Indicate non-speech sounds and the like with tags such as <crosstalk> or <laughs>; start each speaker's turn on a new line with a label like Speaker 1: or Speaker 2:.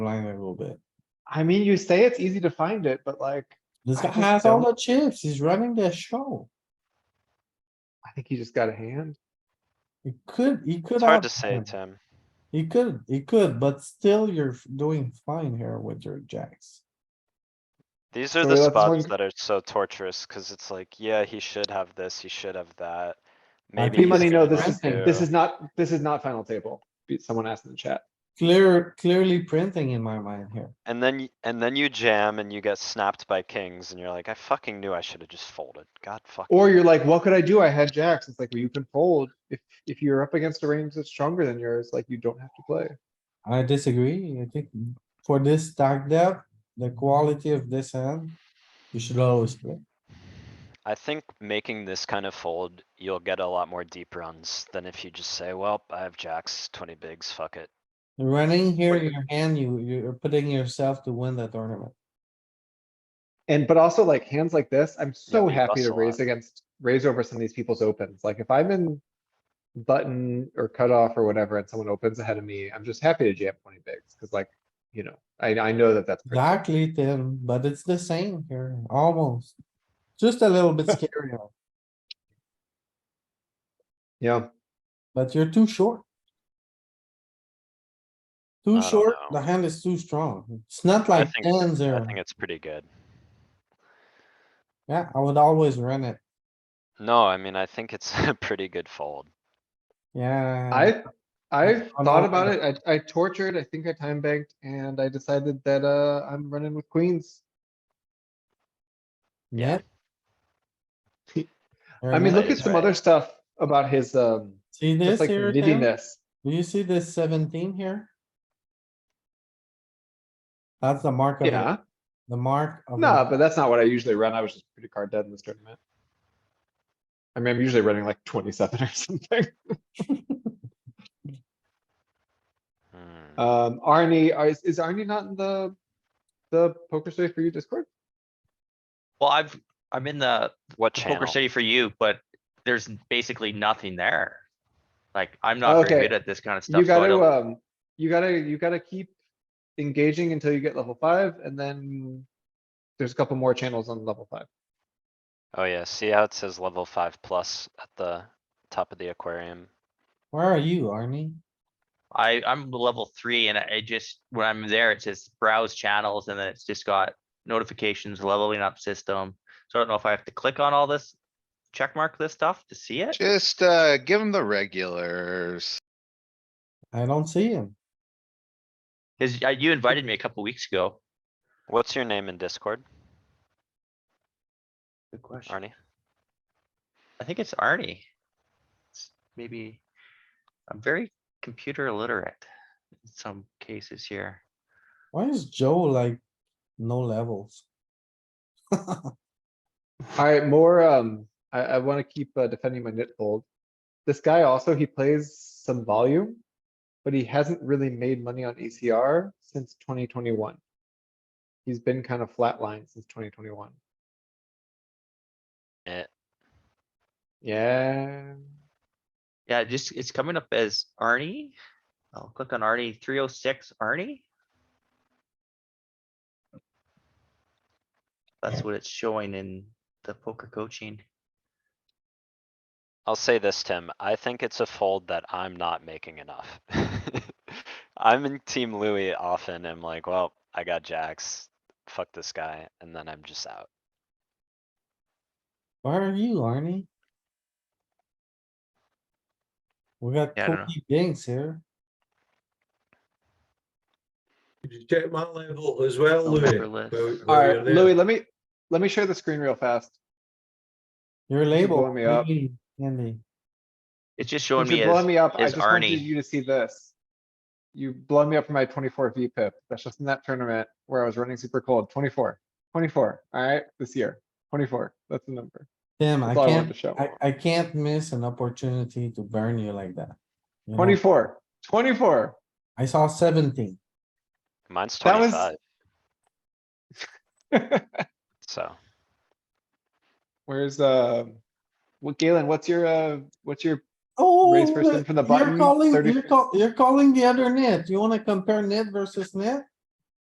Speaker 1: blind a little bit.
Speaker 2: I mean, you say it's easy to find it, but like,
Speaker 1: This
Speaker 2: I
Speaker 1: guy
Speaker 2: just
Speaker 1: has all the
Speaker 2: don't-
Speaker 1: chips, he's running the show.
Speaker 2: I think he just got a hand.
Speaker 1: He could, he could.
Speaker 3: It's hard to say,
Speaker 1: outjam.
Speaker 3: Tim.
Speaker 1: He could, he could, but still you're f- doing fine here with your jacks.
Speaker 3: These are
Speaker 2: So
Speaker 3: the
Speaker 2: that's
Speaker 3: spots
Speaker 2: one-
Speaker 3: that are so torturous, cause it's like, yeah, he should have this, he should have that.
Speaker 1: I
Speaker 3: Maybe
Speaker 1: think
Speaker 2: P
Speaker 3: he's
Speaker 2: money, no,
Speaker 3: gonna
Speaker 2: this
Speaker 3: have
Speaker 2: is,
Speaker 1: printing.
Speaker 2: this
Speaker 3: to.
Speaker 2: is not, this is not final table. Be- Someone asked in the chat.
Speaker 1: Clear, clearly printing in my mind here.
Speaker 3: And then, y- and then you jam and you get snapped by kings and you're like, I fucking knew I should have just folded. God fucking.
Speaker 2: Or you're
Speaker 3: damn
Speaker 2: like,
Speaker 3: it."
Speaker 2: what could I do? I had jacks. It's like, well, you can fold. If, if you're up against a range that's stronger than yours, like you don't have to play.
Speaker 1: I disagree. I think for this stack depth, the quality of this hand, you should always play.
Speaker 3: I think making this kind of fold, you'll get a lot more deep runs than if you just say, well, I have jacks, twenty bigs, fuck it.
Speaker 1: Running here your hand, you, you're putting yourself to win the tournament.
Speaker 2: And but also like hands like this, I'm so
Speaker 3: we
Speaker 2: happy to
Speaker 3: bust a
Speaker 2: raise
Speaker 3: lot.
Speaker 2: against, raise over some of these people's opens. Like if I'm in button or cutoff or whatever, and someone opens ahead of me, I'm just happy to jam twenty bigs, cuz like, you know, I, I know that that's. pretty-
Speaker 1: Exactly, Tim, but it's the same here, almost. Just a little
Speaker 3: <laughs>
Speaker 1: bit scarier,
Speaker 2: Yeah,
Speaker 1: but you're too short. Too
Speaker 3: I don't
Speaker 1: short,
Speaker 3: know.
Speaker 1: the hand is too strong. It's not
Speaker 3: I
Speaker 1: like
Speaker 3: think,
Speaker 1: hands
Speaker 3: I
Speaker 1: there.
Speaker 3: think it's pretty good.
Speaker 1: Yeah, I would always run it.
Speaker 3: No, I mean, I think it's <laughs> a pretty good fold.
Speaker 1: Yeah.
Speaker 2: I, I
Speaker 1: I'm
Speaker 2: thought
Speaker 1: open.
Speaker 2: about it. I, I tortured, I think I time banked and I decided that, uh, I'm running with queens.
Speaker 1: Yeah. <laughs>
Speaker 2: I mean,
Speaker 3: that
Speaker 2: look at
Speaker 3: is
Speaker 2: some
Speaker 3: right.
Speaker 2: other stuff about his, um,
Speaker 1: See this
Speaker 2: just like
Speaker 1: here, Tim?
Speaker 2: nittiness.
Speaker 1: Do you see this seventeen here? That's the mark of
Speaker 2: Yeah,
Speaker 1: it, the mark of.
Speaker 2: nah,
Speaker 1: it.
Speaker 2: but that's not what I usually run. I was just pretty card dead in this tournament. I mean, I'm usually running like twenty-seven <laughs> or something.
Speaker 3: Hmm.
Speaker 2: Um, Arnie, are- is, is Arnie not in the, the poker story for you Discord?
Speaker 4: Well, I've, I'm in the
Speaker 3: What
Speaker 4: poker
Speaker 3: channel?
Speaker 4: city for you, but there's basically nothing there. Like, I'm not very good
Speaker 2: Okay.
Speaker 4: at this kind of stuff.
Speaker 2: You
Speaker 4: so I
Speaker 2: gotta,
Speaker 4: don't-
Speaker 2: um, you gotta, you gotta keep engaging until you get level five and then there's a couple more channels on level
Speaker 4: <laughs>
Speaker 2: five.
Speaker 3: Oh yeah, see how it says level five plus at the top of the aquarium?
Speaker 1: Where are you, Arnie?
Speaker 4: I, I'm level three and I I just, when I'm there, it says browse channels and then it's just got notifications, leveling up system. So I don't know if I have to click on all this, check mark this stuff to see it.
Speaker 5: Just, uh, give him the regulars.
Speaker 1: I don't see him.
Speaker 4: Cause uh, you invited me a couple weeks ago.
Speaker 3: What's your name in Discord,
Speaker 4: Good question.
Speaker 3: Arnie?
Speaker 4: I think it's Arnie. It's Maybe, I'm very computer illiterate in some cases here.
Speaker 1: Why is Joe like no levels?
Speaker 2: Alright, more, um, I, I wanna keep uh, defending my nit fold. This guy also, he plays some volume, but he hasn't really made money on ECR since twenty twenty-one. He's been kind of flatlined since twenty twenty-one.
Speaker 3: Eh.
Speaker 2: Yeah,
Speaker 4: Yeah, it just, it's coming up as Arnie. I'll click on Arnie, three oh six Arnie. That's what it's showing in the poker coaching.
Speaker 3: I'll say this, Tim. I think it's a fold that I'm not making enough. <laughs> I'm in Team Louis often. I'm like, well, I got jacks. Fuck this guy, and then I'm just out.
Speaker 1: Where are you, Arnie? We got
Speaker 4: Yeah, I don't know.
Speaker 1: twenty binks here.
Speaker 6: Could you check my level as well,
Speaker 4: I'll
Speaker 6: Louis?
Speaker 4: never list.
Speaker 6: While- while
Speaker 2: alright,
Speaker 6: you're there?
Speaker 2: Louis, let me, let me share the screen real fast.
Speaker 1: Your label.
Speaker 2: blowing me
Speaker 1: what do you
Speaker 2: up.
Speaker 1: mean, Andy,
Speaker 4: It's just
Speaker 2: Since
Speaker 4: showing me
Speaker 2: You're blowing
Speaker 4: as,
Speaker 2: me up. I
Speaker 4: is
Speaker 2: just wanted
Speaker 4: Arnie.
Speaker 2: you to see this. You blow me up for my twenty-four V pip. That's just in that tournament where I was running super cold. 24, 24. alright, this year, twenty-four, that's the number.
Speaker 1: Tim, I
Speaker 2: That's all I wanted to
Speaker 1: can't,
Speaker 2: show.
Speaker 1: I,
Speaker 2: <laughs>
Speaker 1: I can't miss an opportunity to burn you like that. You know,
Speaker 2: 24, 24.
Speaker 1: I saw seventeen.
Speaker 3: Mine's
Speaker 2: That was-
Speaker 3: twenty-five, so
Speaker 2: <laughs> Where's, uh, what Galen, what's your, uh, what's your,
Speaker 1: Oh,
Speaker 2: Raise first in
Speaker 1: look,
Speaker 2: from the
Speaker 1: you're
Speaker 2: button,
Speaker 1: calling-
Speaker 2: 30
Speaker 1: You're call- you're calling the other net. You wanna compare net versus net?